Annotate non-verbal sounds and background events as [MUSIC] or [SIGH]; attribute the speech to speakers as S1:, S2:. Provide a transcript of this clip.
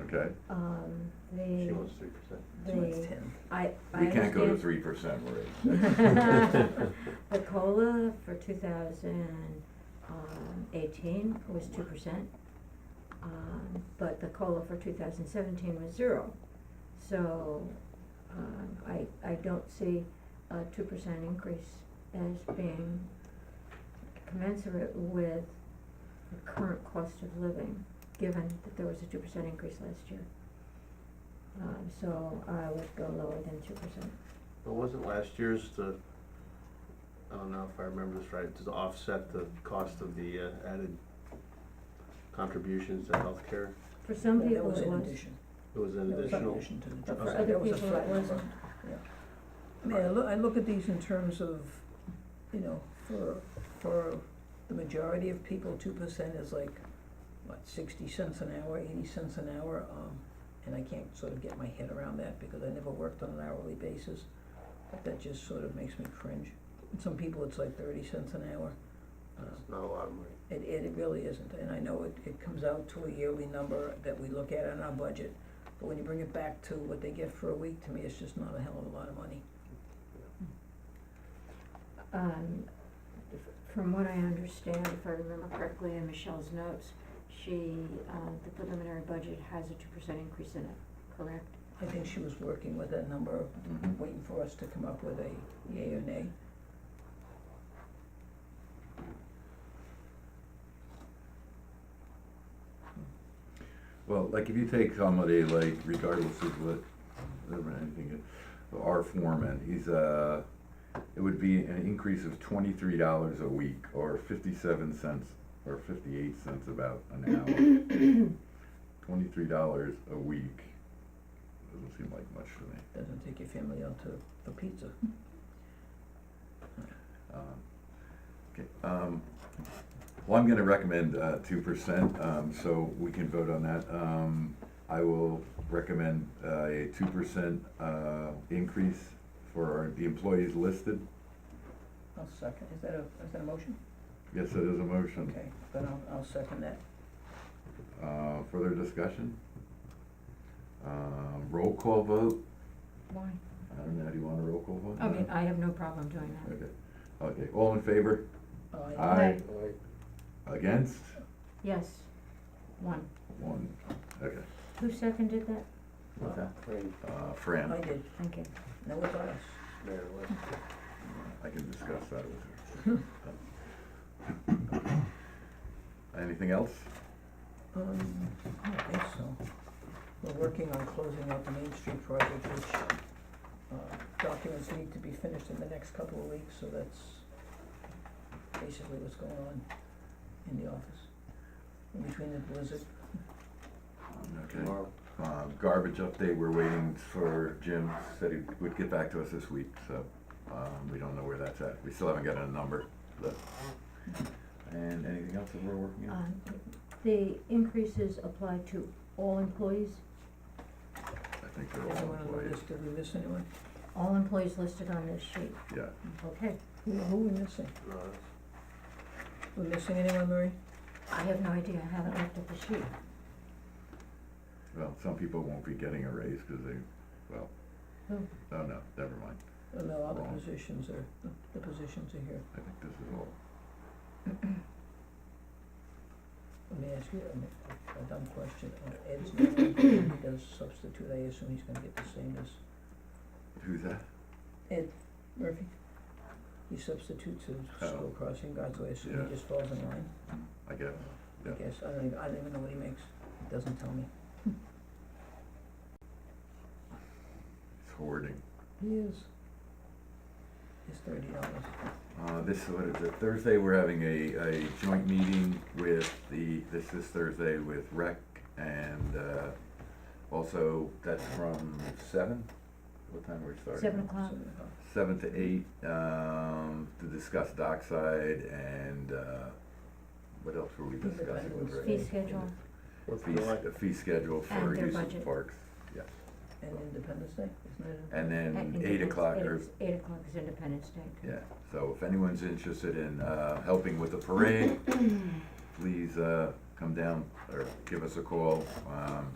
S1: okay?
S2: Um,
S1: She
S2: the,
S1: wants three percent.
S2: the,
S3: ten.
S2: I, I
S1: We can't go to
S2: understand-
S1: three percent raise.
S2: [LAUGHS] The COLA for two thousand eighteen was two percent. Um, but the COLA for two thousand seventeen was zero. So, um, I, I don't see a two percent increase as being commensurate with the current cost of living, given that there was a two percent increase last year. Um, so I would go lower than two percent.
S4: But wasn't last year's the, I don't know if I remember this right, to offset the cost of the uh, added contributions to healthcare?
S2: For some
S3: That
S2: people
S3: was
S2: it
S3: in
S2: was.
S3: addition.
S4: It was an
S3: That was in
S4: additional,
S3: addition to the
S2: But
S3: job
S2: for
S4: Okay.
S3: site.
S2: other
S3: That was a
S2: people, it
S3: flat number.
S2: wasn't.
S3: I mean, I look, I look at these in terms of, you know, for, for the majority of people, two percent is like, what, sixty cents an hour, eighty cents an hour, um, and I can't sort of get my head around that because I never worked on an hourly basis. But that just sort of makes me cringe. And some people, it's like thirty cents an hour. Um,
S4: it's uh, not a lot of money.
S3: It, it it really isn't, and I know it, it comes out to a yearly number that we look at in our budget, but when you bring it back to what they get for a week, to me, it's just not a hell of a lot of money.
S2: Um, f- from what I understand, if I remember correctly in Michelle's notes, she, uh, the preliminary budget has a two percent increase in it, correct?
S3: I think she was working with that number,
S1: Mhm.
S3: waiting for us to come up with a yay or nay.
S1: Well, like if you take somebody like regardless of what, whatever anything, is, our foreman, he's uh it would be an increase of twenty-three dollars a week or fifty-seven cents or fifty-eight cents about an hour.
S2: [COUGHS]
S1: Twenty-three dollars a week, doesn't seem like much to me.
S3: Doesn't take your family out to, for pizza.
S1: Um, Okay, um, well, I'm gonna recommend, uh, two percent, um, so we can vote on that. Um, I will recommend, uh, a two percent, uh, increase for our- the employees listed.
S3: I'll second, is that a, is that a motion?
S1: Yes, it is a motion.
S3: Okay, then I'll, I'll second that.
S1: Uh, further discussion? Um, roll call vote?
S2: Why?
S1: I don't know, do you want a roll call vote?
S2: I mean, I have no problem doing that.
S1: Okay, okay, all in favor?
S3: Uh,
S1: Aye.
S4: Like,
S1: Against?
S2: Yes, one.
S1: One, okay.
S2: Who seconded that?
S4: What's that? Rain,
S1: Uh,
S3: I
S1: Fran?
S3: did,
S2: Thank you.
S3: now it's us.
S4: Mayor, what?
S1: I can discuss that with her. Anything else?
S3: Um, I don't think so. We're working on closing out the Main Street project, which, uh, documents need to be finished in the next couple of weeks, so that's basically what's going on in the office. In between the blizzard,
S1: Okay.
S4: Tomorrow.
S1: Uh, Garbage update, we're waiting for Jim, said he would get back to us this week, so um, we don't know where that's at. We still haven't got a number, but. And anything else that we're working on?
S2: Um, the increases apply to all employees,
S1: I think they're all
S3: everyone on the
S1: employees,
S3: list, did we miss anyone?
S2: all employees listed on this sheet.
S1: yeah.
S2: Okay,
S3: Who, who we missing?
S4: No, that's-
S3: We missing anyone, Murray?
S2: I have no idea, I haven't looked at the sheet.
S1: Well, some people won't be getting a raise because they, well,
S2: Who?
S1: oh no, never mind.
S3: Oh, No, all the
S1: Wrong.
S3: positions are, the, the positions are here.
S1: I think this is all.
S3: Let me ask you a, a dumb question, Uh, Ed's not on, he does substitute, I assume he's gonna get the same as
S1: Who's that?
S3: Ed Murphy, he substitutes
S1: Oh.
S3: as school crossing guard, so I assume
S1: Yeah.
S3: he just falls in line,
S1: I guess.
S3: I
S1: Yeah.
S3: guess, I don't even, I don't even know what he makes, He doesn't tell me.
S1: It's hoarding.
S3: He is. It's thirty dollars,
S1: Uh, this, what is it, Thursday, we're having a, a joint meeting with the, this is Thursday with rec and, uh, also, that's from seven? What time we're starting?
S2: Seven o'clock,
S3: seven dollars.
S1: Seven to eight, um, to discuss dockside and, uh, what else were we
S3: Fee
S1: discussing with
S3: schedules.
S1: rec?
S2: fee schedule
S4: What's the
S1: Fee,
S4: like?
S1: s- fee schedule for
S2: And their
S1: use of
S2: budget.
S1: parks.
S3: uh, and Independence Day, isn't it?
S1: And
S2: at
S1: then eight
S2: Independence-
S1: o'clock
S2: eight
S1: or
S2: is- Eight o'clock is Independence Day.
S1: Yeah, so if anyone's interested in uh, helping with the parade, please uh, come down or give us a call. Um,